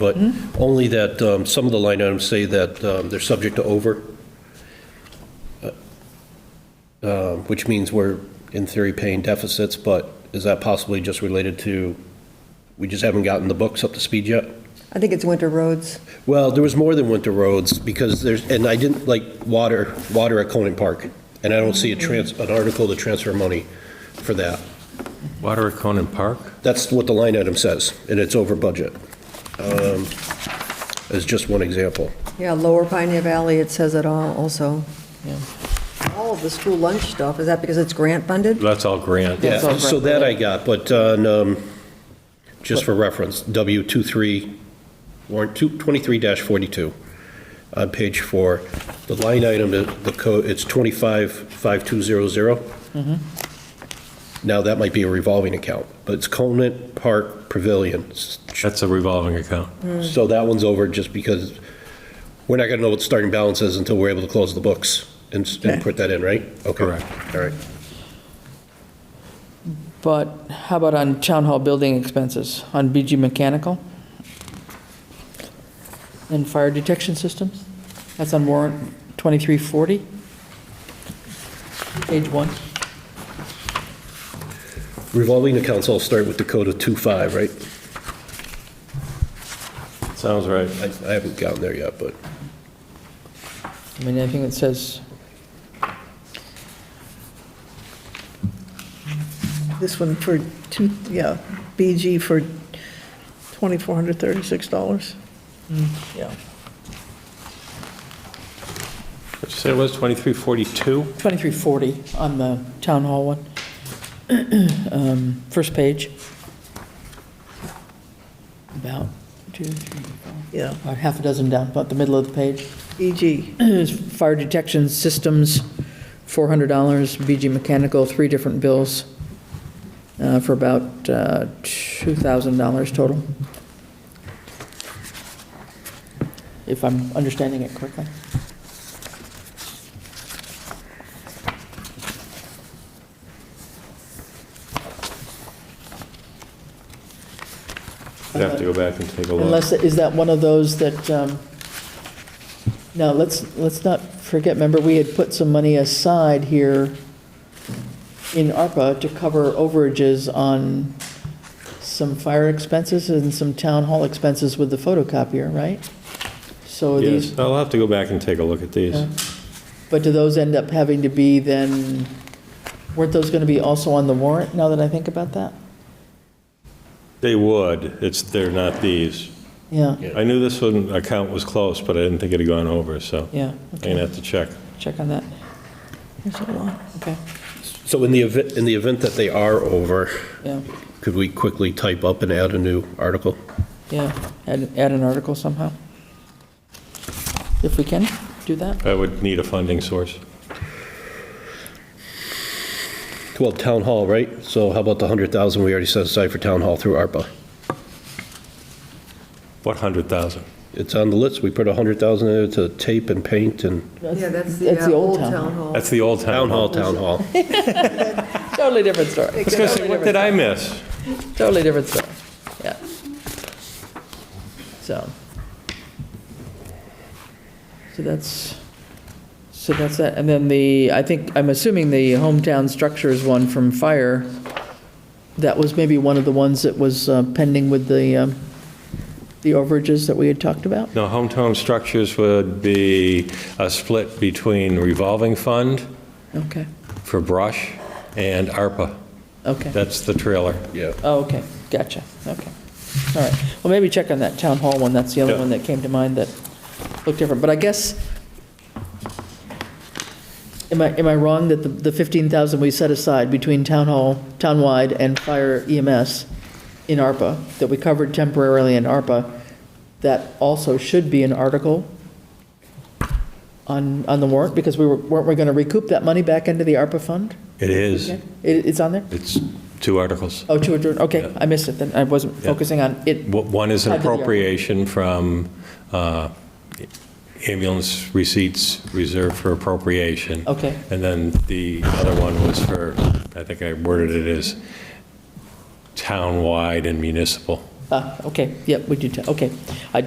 but only that um, some of the line items say that um, they're subject to over, uh, which means we're, in theory, paying deficits, but is that possibly just related to, we just haven't gotten the books up to speed yet? I think it's winter roads. Well, there was more than winter roads, because there's, and I didn't like water, water at Conan Park, and I don't see a trans, an article to transfer money for that. Water at Conan Park? That's what the line item says, and it's over budget. Um, As just one example. Yeah, Lower Pioneer Valley, it says it all also. All of the school lunch stuff, is that because it's grant funded? That's all grant. That's Yeah, all so correct. that I got, but on, um, just for reference, W23, warrant 23-42, on page four, the line item, the- the code, it's 255200. Mm-hmm. Now, that might be a revolving account, but it's Conant Park Pavilion. That's a revolving account. So that one's over just because we're not going to know what the starting balance is until we're able to close the books and s- and Okay. put that in, right? Okay. Correct. All right. But how about on town hall building expenses, on BG Mechanical? And fire detection systems? That's on warrant 2340? Page one. Revolving accounts all start with the code of 25, right? Sounds right. I I haven't gotten there yet, but I mean, anything that says, This one for two, yeah, BG for $2,436. yeah, What'd you say it was, 2342? 2340 on the town hall one. Um, First page. About two, three, four, Yeah, E about half a dozen down, about the middle of the page. BG, is fire detection systems, $400, BG Mechanical, three different bills uh, for about uh, $2,000 total. If I'm understanding it correctly. I'd have to go back and take a look. Unless, is that one of those that, um, no, let's, let's not forget, remember, we had put some money aside here in ARPA to cover overages on some fire expenses and some town hall expenses with the photocopier, right? So these, Yes, I'll have to go back and take a look at these. Yeah. but do those end up having to be then, weren't those going to be also on the warrant, now that I think about that? They would, it's, they're not these. Yeah, Yeah. I knew this one account was close, but I didn't think it had gone over, so yeah, I'm going to have to check. check on that, there's a lot. okay, So in the event, in the event that they are over, yeah. could we quickly type up and add a new article? Yeah, add, add an article somehow. If we can do that. I would need a funding source. Well, town hall, right? So how about the 100,000 we already set aside for town hall through ARPA? What, 100,000? It's on the list. We put 100,000 in it to tape and paint and Yeah, that's That's the uh, old town hall. That's the old town town hall, hall. town hall. Totally different story, I was going to say, what did I miss? totally different story, yeah. So. So that's, so that's that, and then the, I think, I'm assuming the hometown structures one from fire, that was maybe one of the ones that was uh, pending with the, um, the overages that we had talked about? No, hometown structures would be a split between revolving fund Okay, for brush and ARPA. okay. That's the trailer. Yeah. Oh, okay, gotcha, okay. All right, well, maybe check on that town hall one, that's the other Yeah. one that came to mind that looked different, but I guess, am I, am I wrong that the the 15,000 we set aside between town hall, townwide and fire EMS in ARPA, that we covered temporarily in ARPA, that also should be an article on, on the warrant, because we were, weren't we going to recoup that money back into the ARPA fund? It is. It, it's on there? It's two articles. Oh, to adjourn, okay, Yeah. I missed it then, I wasn't Yeah. focusing on it, W- One is an I did the ARPA. appropriation from uh, ambulance receipts reserved for appropriation. Okay. And then the other one was for, I think I worded it as townwide and municipal. Ah, okay, yep, we do, ta- okay. I